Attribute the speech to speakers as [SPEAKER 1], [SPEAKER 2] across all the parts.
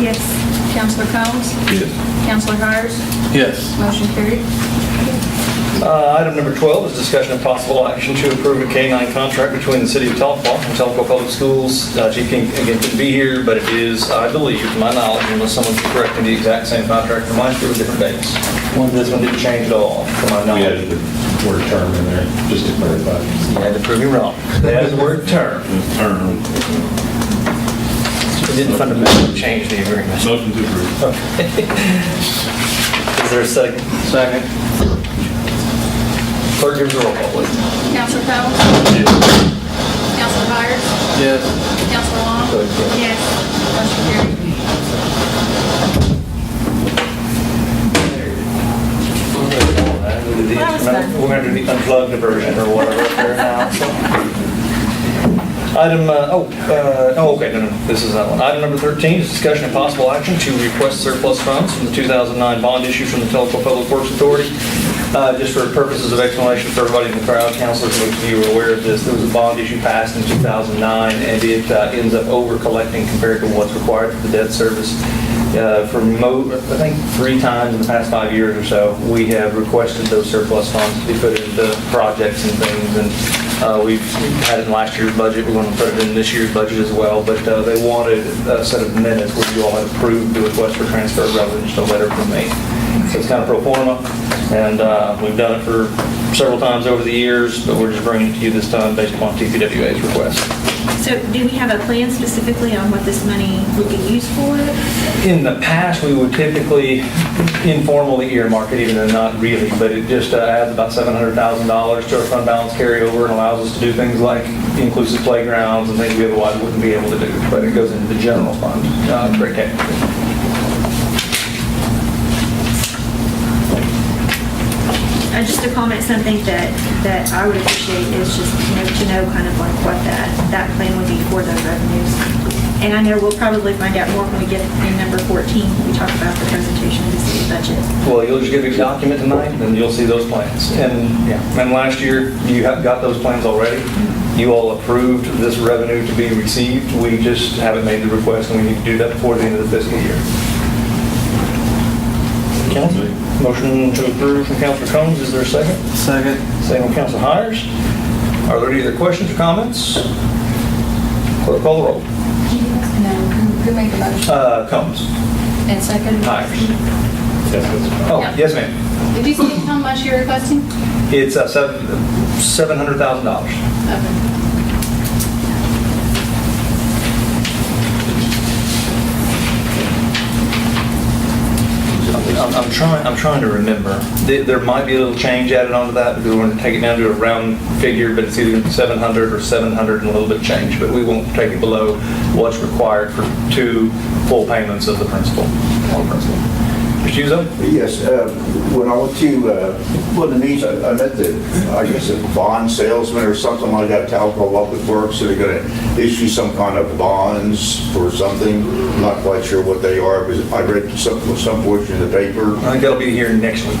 [SPEAKER 1] Yes.
[SPEAKER 2] Counselor Combs?
[SPEAKER 3] Yes.
[SPEAKER 2] Counselor Hires?
[SPEAKER 3] Yes.
[SPEAKER 2] Motion carried.
[SPEAKER 4] Uh, Item number 12 is discussion of possible action to approve a K-9 contract between the City of Tahlequah and Tahlequah Public Schools. Uh, Chief King, again, couldn't be here, but it is, I believe, to my knowledge, unless someone can correct me, the exact same contract from last year with different dates. This one didn't change at all, to my
[SPEAKER 5] We
[SPEAKER 4] knowledge.
[SPEAKER 5] added the word term in there, just to clarify.
[SPEAKER 4] You had to prove me wrong. They added the word term.
[SPEAKER 3] Turn.
[SPEAKER 4] It didn't fundamentally change the agreement.
[SPEAKER 3] Motion to approve.
[SPEAKER 4] Is there a second? Second. Clerk, give us a roll call, please.
[SPEAKER 2] Counselor Combs? Counselor Hires?
[SPEAKER 3] Yes.
[SPEAKER 2] Counselor Long?
[SPEAKER 1] Yes.
[SPEAKER 2] Motion carried.
[SPEAKER 4] We're going to do the unplugged version or whatever up there now. so. Item, uh, oh, uh, oh, okay, no, no, this is that one. Item number 13 is discussion of possible action to request surplus funds from the 2009 bond issue from the Telequa Public Works Authority. Uh, Just for purposes of explanation for everybody in the crowd, councilors, most of you are aware of this, there was a bond issue passed in 2009, and it uh, ends up over-collecting compared to what's required for the debt service uh, for mo, I think three times in the past five years or so, we have requested those surplus funds to be put into projects and things, and uh, we've had it in last year's budget, we want to put it in this year's budget as well, but uh, they wanted a set of minutes where you all had approved the request for transfer rather than just a letter from me. So it's kind of pro forma, and uh, we've done it for several times over the years, but we're just bringing it to you this time based upon TPWA's request.
[SPEAKER 1] So do we have a plan specifically on what this money would be used for?
[SPEAKER 4] In the past, we would typically informally earmark it, even though not really, but it just uh, adds about $700,000 to our fund balance carryover and allows us to do things like inclusive playgrounds and things we otherwise wouldn't be able to do, but it goes into the general fund, uh, very technically.
[SPEAKER 1] Uh, Just a comment, something that, that I would appreciate is just, you know, to know kind of like what that, that plan would be for those revenues. And I know we'll probably find out more when we get in number 14, when we talk about the presentation of the city budget.
[SPEAKER 4] Well, you'll just give me a document tonight, and you'll see those plans. And, yeah, and last year, you have got those plans already. You all approved this revenue to be received. We just haven't made the request, and we need to do that before the end of the fiscal year. Counsel, motion to approve from Counselor Combs, is there a second?
[SPEAKER 3] Second.
[SPEAKER 4] Second from Counselor Hires. Are there any other questions or comments? Clerk call the roll.
[SPEAKER 2] No, who made the motion?
[SPEAKER 4] Uh, Combs,
[SPEAKER 2] And second?
[SPEAKER 4] Hires.
[SPEAKER 5] That's what's-
[SPEAKER 4] Oh,
[SPEAKER 2] Yeah.
[SPEAKER 4] yes, ma'am.
[SPEAKER 2] Did you say how much you're requesting?
[SPEAKER 4] It's uh, seven $700,000.
[SPEAKER 2] Okay.
[SPEAKER 4] I'm I'm trying, I'm trying to remember. There there might be a little change added onto that because we're going to take it down to a round figure, but it's either 700 or 700 and a little bit of change, but we won't take it below what's required for two full payments of the principal, on principal. Mr. Uzo?
[SPEAKER 6] Yes, uh, when I went to, uh, well, Denise, I I met the, I guess, a bond salesman or something like that, Talco Public Works, they're going to issue some kind of bonds for something, not quite sure what they are, but I read some, some portion of the paper.
[SPEAKER 4] I think that'll be here next week.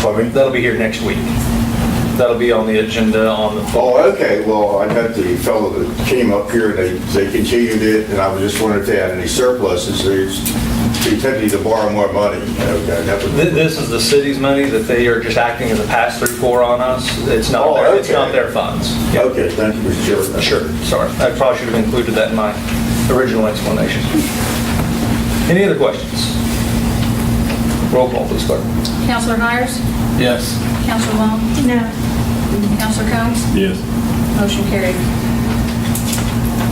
[SPEAKER 6] Pardon me?
[SPEAKER 4] That'll be here next week. That'll be on the agenda on the fall.
[SPEAKER 6] Oh, okay, well, I met the fellow that came up here, and they, they continued it, and I was just wondering if they had any surpluses, they're intending to borrow more money. Okay, that was-
[SPEAKER 4] Th- This is the city's money that they are just acting as a pass-through for on us. It's not
[SPEAKER 6] Oh,
[SPEAKER 4] their, it's
[SPEAKER 6] okay.
[SPEAKER 4] not their funds. Yeah.
[SPEAKER 6] Okay, thank you, Mr. Chairman.
[SPEAKER 4] Sure, sorry. I probably should have included that in my original explanation. Any other questions? Roll call, please, clerk.
[SPEAKER 2] Counselor Hires?
[SPEAKER 3] Yes.
[SPEAKER 2] Counselor Long?
[SPEAKER 1] No.
[SPEAKER 2] Counselor Combs?
[SPEAKER 3] Yes.
[SPEAKER 2] Motion carried.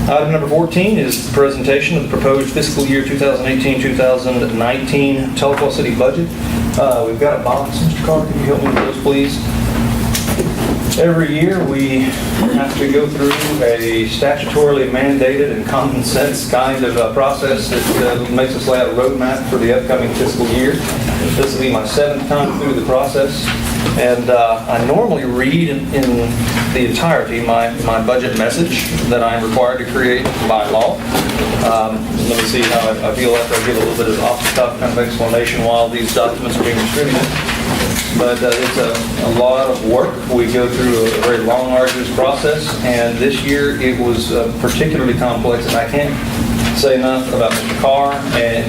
[SPEAKER 4] Item number 14 is the presentation of the proposed fiscal year 2018-2019 Telequa City budget. Uh, We've got a box, Mr. Carter, can you help me with those, please? Every year, we have to go through a statutorily mandated and common sense kind of uh, process that uh, makes us lay out a roadmap for the upcoming fiscal year. This will be my seventh time through the process, and uh, I normally read in in the entirety my, my budget message that I am required to create by law. Um, Let me see how I- I feel after I give a little bit of off-the-cuff kind of explanation while these documents are being distributed but uh, it's a, a lot of work. We go through a very long, arduous process, and this year it was uh, particularly complex, and I can't say enough about Mr. Carr and